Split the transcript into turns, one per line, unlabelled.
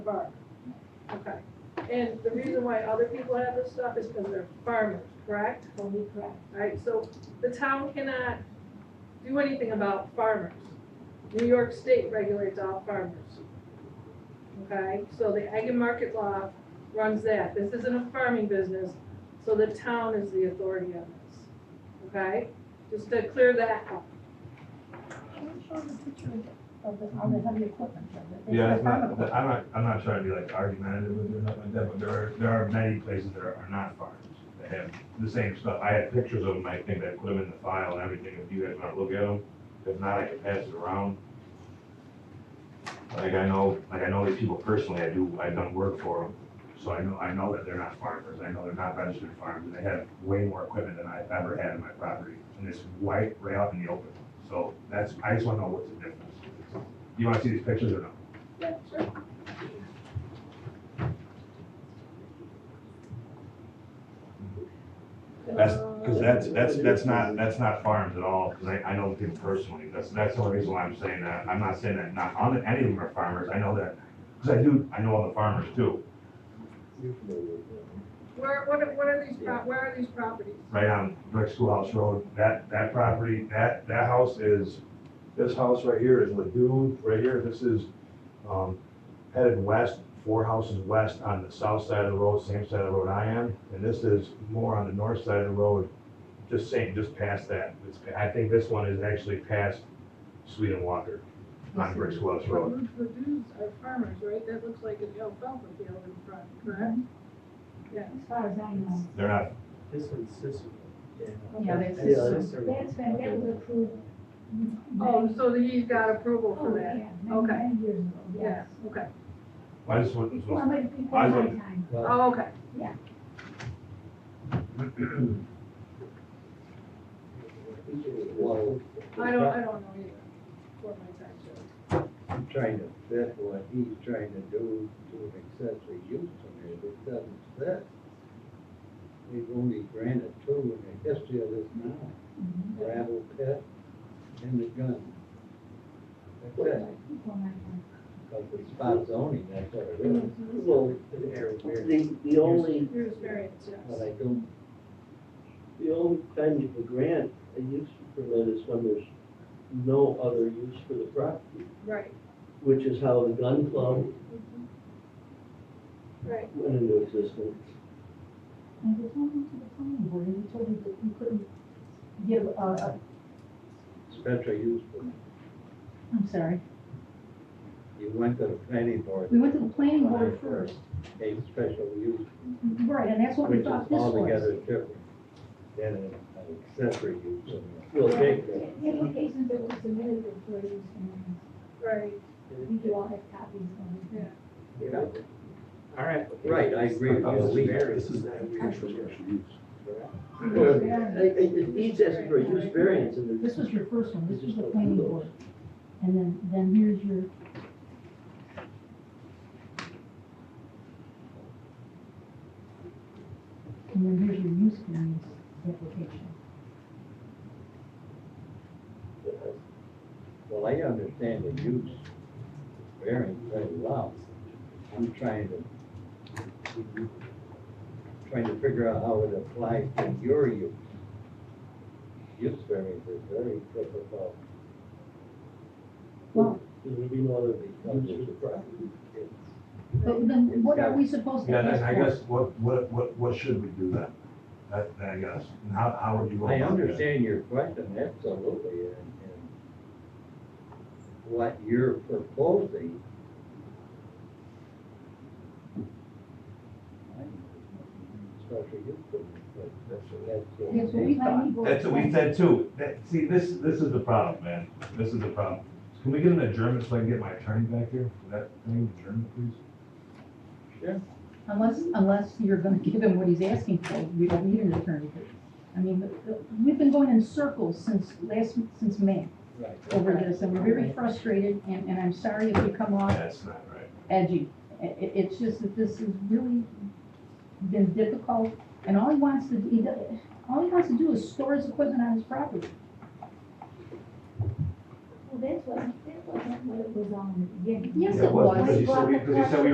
Bar. Okay, and the reason why other people have this stuff is because they're farmers, correct?
Totally correct.
Alright, so the town cannot do anything about farmers. New York State regulates all farmers. Okay, so the ag and market law runs that. This isn't a farming business, so the town is the authority on this. Okay, just to clear that up.
Can you show the picture of the, of the heavy equipment?
Yeah, that's not, that- I'm not, I'm not trying to be like argumentative with you or nothing like that, but there are, there are many places that are, are not farms that have the same stuff. I had pictures of them, I think I put them in the file and everything, if you guys wanna look at them, if not, I can pass it around. Like I know, like I know these people personally, I do, I've done work for them, so I know, I know that they're not farmers, I know they're not registered farmers, and they have way more equipment than I've ever had in my property, and it's white right out in the open, so that's, I just wanna know what's the difference. You wanna see these pictures or not?
Yeah, sure.
That's,
Uh,
because that's, that's, that's not, that's not farms at all, because I, I know the people personally, that's, that's the only reason why I'm saying that, I'm not saying that not, on- any of them are farmers, I know that, because I do, I know all the farmers too,
Where, what are, what are these, pro- where are these properties?
right on Brick Schoolhouse Road, that, that property, that, that house is, this house right here is Lagoon, right here, this is, um, headed west, four houses west on the south side of the road, same side of the road I am, and this is more on the north side of the road, just saying, just past that. It's, I think this one is actually past Sweet and Walker on Brick Schoolhouse Road.
But The dudes are farmers, right? That looks like an alfalfa field in front, correct?
Mhm.
Yeah.
As far as I know.
They're not,
This one's Cicero.
Yeah, there's
Yeah, that's
this,
the one.
That's been, that was approved.
Oh, so he's got approval for
Oh,
that?
yeah, many,
Okay.
many years ago,
Yeah,
yes.
okay.
I just wouldn't,
Well, but
I
before my
wouldn't-
time,
Well,
Oh, okay.
well,
I don't, I don't know either. For my time, so.
I'm trying to fit what he's trying to do to an accessory use permit, it doesn't fit. We've only granted two in the history of this now,
Mm-hmm.
gravel pit and the gun. That's it,
before my time.
because it's spot zoning, that's what it is.
Mm-hmm.
Mm-hmm.
well, the, the only,
Here's variance,
But
yes.
I don't,
the only time you can grant a use permit is when there's no other use for the property,
Right, Mm-hmm.
which is how the gun club
right.
went into existence.
And we told them to the planning board, and we told them that we couldn't give, uh, uh,
special use permit,
I'm sorry,
you went to the planning board.
we went to the planning board
for
first,
A special use,
right, and that's what we
which
thought
is
this was.
altogether different than an accessory use permit.
Well, they,
applications that were submitted for use, and
Right,
we do all have copies of
Yeah.
it.
Yeah.
all right.
Right, I agree with you.
This is
that
we actually use.
well, it, it it needs as for a use variance and
This
there's.
was your first one, this was the planning board. And then, then here's your, and then here's your use variance application.
Well, I understand the use variance very well. I'm trying to, trying to figure out how it applies to your use. Use variance is very difficult.
Well,
There would be no other use for the property.
but then what are we supposed to
yeah,
ask
then
for?
I guess, what, what, what, what should we do then? That, that I guess, and how, how would you go about
I
that?
understand your question, absolutely, and, and what you're proposing. Special use permit, but that's, that's.
That's what we planning board.
That's what we said too. That, see, this, this is the problem, man. This is the problem. Can we get an adjournment so I can get my attorney back here? Is that thing adjournment, please?
Unless, unless you're gonna give him what he's asking for, we don't need an attorney. I mean, the- the- we've been going in circles since last, since May
Right.
over this, and we're very frustrated, and, and I'm sorry if we come off
That's not right.
edgy. I- I it's just that this has really been difficult, and all he wants to, he, do- all he wants to do is store his equipment on his property.
Well, that wasn't, that wasn't what it was on in the beginning.
Yes,
Yeah,
it
was,
was.
Because he said we, because he said we